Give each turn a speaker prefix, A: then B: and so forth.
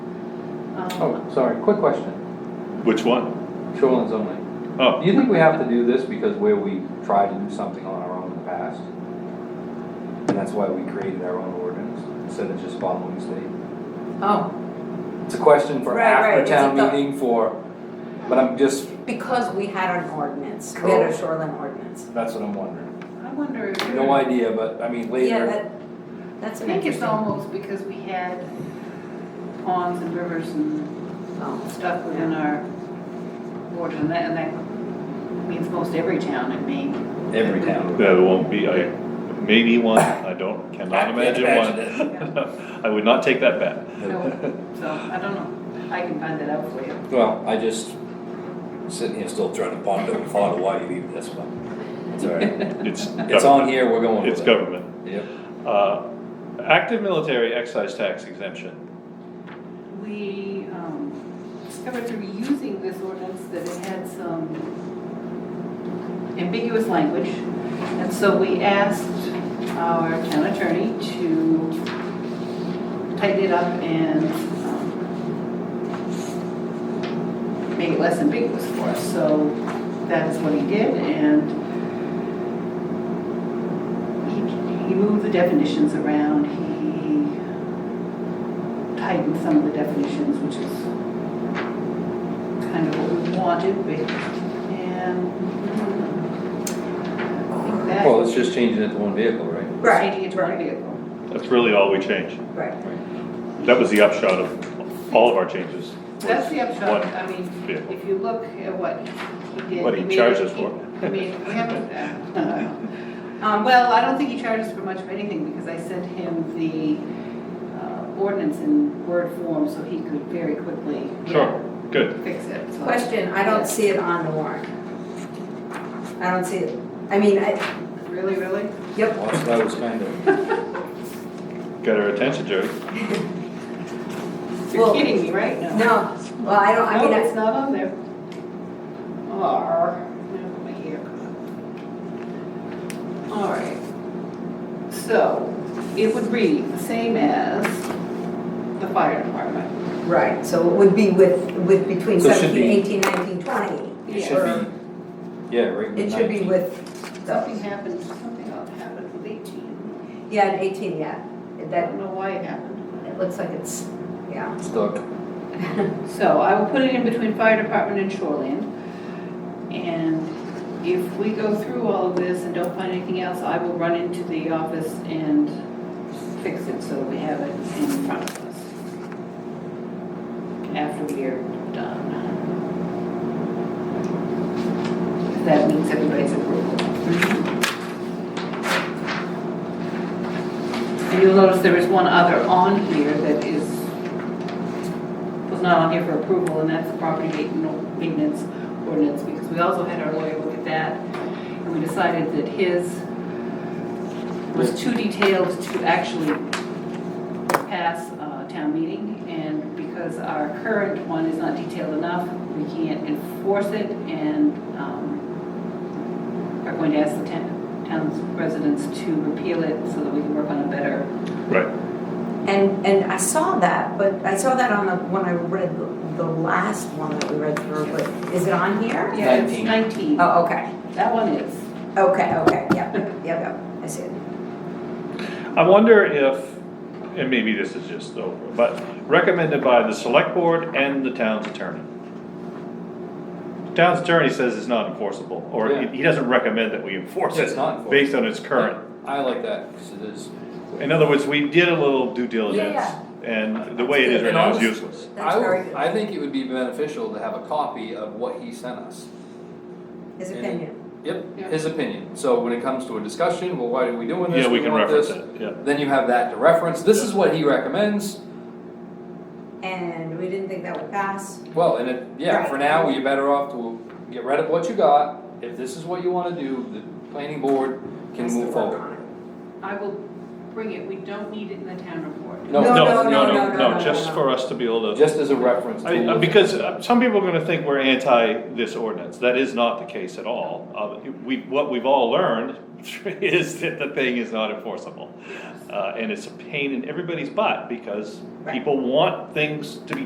A: Um,
B: Oh, sorry, quick question,
C: Which one?
B: shoreline only.
C: Oh,
B: Do you think we have to do this because where we tried to do something on our own in the past? And that's why we created our own ordinance instead of just following state?
A: Oh,
B: It's a question for
D: Right, right,
B: after
D: is it
B: town
D: the-
B: meeting for, but I'm just,
D: Because we had an ordinance, we had a
B: Cool.
D: shoreline ordinance.
B: that's what I'm wondering.
A: I wonder if.
B: No idea, but I mean
D: Yeah,
B: later,
D: that, that's
A: I
D: an
A: think it's
D: interesting.
A: almost because we had ponds and rivers and
D: Oh,
A: stuff within our water, and that, and that means most every town in Maine.
B: every town.
C: there won't be, I, maybe one, I don't, cannot
B: I can't
C: imagine
B: imagine
C: one. I would not take that bet.
A: So, so, I don't know, I can find that out for you.
B: Well, I just, sitting here still trying to ponder and thought of why you even this one. It's all right.
C: It's.
B: It's on here, we're going with
C: It's
B: it.
C: government.
B: Yep.
C: Uh, Active military excise tax exemption.
A: We, um, discovered through using this ordinance that it had some ambiguous language, and so we asked our town attorney to tighten it up and, um, make it less ambiguous for us, so that's what he did, and he, he moved the definitions around, he tightened some of the definitions, which is kind of what we wanted, but, and. mm-hmm. I think that-
B: Well, it's just changing it to one vehicle, right?
D: Right,
A: Changing it to one vehicle.
C: That's really all we changed.
D: right.
C: That was the upshot of all of our changes.
A: That's the upshot,
C: One
A: I mean,
C: vehicle.
A: if you look at what he did.
C: What he
A: made-
C: charged us for.
A: I mean, we haven't, uh, um, well, I don't think he charged us for much of anything, because I sent him the uh, ordinance in word form, so he could very quickly.
C: Sure, good.
A: Fix it, so.
D: Question, I don't see it on the warrant. I don't see it, I mean, I,
A: Really, really?
D: yep,
B: Well, so that was kind of,
C: Got our attention, Jerry.
A: You're
D: Well-
A: kidding me, right?
D: no, well, I don't, I mean,
A: No,
D: I-
A: it's not on there. Arr, no, my hair caught. All right. So, it would read the same as the fire department.
D: right, so it would be with, with between
B: So it should
D: seventeen,
B: be-
D: eighteen, nineteen, twenty.
B: it
A: Yeah.
B: should be, yeah, right.
D: It should be with
A: Something
D: those.
A: happened, something else happened with eighteen.
D: Yeah, and eighteen, yeah,
A: I
D: that,
A: don't know why it happened.
D: it looks like it's, yeah.
B: Stuck.
A: So I will put it in between fire department and shoreland. And if we go through all of this and don't find anything else, I will run into the office and fix it so that we have it in front of us. After we are done. If That means everybody's approval. And you'll notice there is one other on here that is was not on here for approval, and that's the property ma- maintenance ordinance, because we also had our lawyer look at that, and we decided that his was too detailed to actually pass uh, town meeting, and because our current one is not detailed enough, we can't enforce it, and um, are going to ask the town- town's residents to repeal it so that we can work on a better
C: Right.
D: And, and I saw that, but I saw that on the, when I read the, the last one that we read through, but is it on here?
A: Yeah, it's
B: 19.
A: 19.
D: Oh, okay,
A: That one is.
D: okay, okay, yep, yep, yep, I see it.
C: I wonder if, and maybe this is just over, but recommended by the select board and the town's attorney. Town's attorney says it's not enforceable, or he-
B: Yeah.
C: he doesn't recommend that we enforce
B: Yeah,
C: it.
B: it's not enforceable.
C: Based on its current.
B: I like that, because it is.
C: In other words, we did a little due diligence,
D: Yeah,
C: and the way it is right now is
B: And
C: useless.
D: That's
B: I would-
D: very good.
B: I think it would be beneficial to have a copy of what he sent us.
D: His
B: And-
D: opinion,
B: Yep,
A: Yeah.
B: his opinion. So when it comes to a discussion, well, why are we doing this?
C: Yeah, we can
B: want
C: reference
B: this.
C: it, yeah.
B: Then you have that to reference. This is
C: Yeah.
B: what he recommends.
D: and we didn't think that would pass.
B: Well, and it, yeah, for
D: Right.
B: now, you're better off to get rid of what you got. If this is what you wanna do, the planning board can
D: Has to
B: move
D: work
B: forward.
D: on it.
A: I will bring it, we don't need it in the town report.
B: No.
C: No,
D: no,
C: no,
D: no, no,
C: no,
D: no,
C: no, just
D: no.
C: for us to be able to,
B: Just as a reference.
C: I-
B: tool.
C: I- because uh, some people are gonna think we're anti this ordinance, that is not the case at all. Uh, we, what we've all learned is that the thing is not enforceable. Uh, and it's a pain in everybody's butt, because people want things to be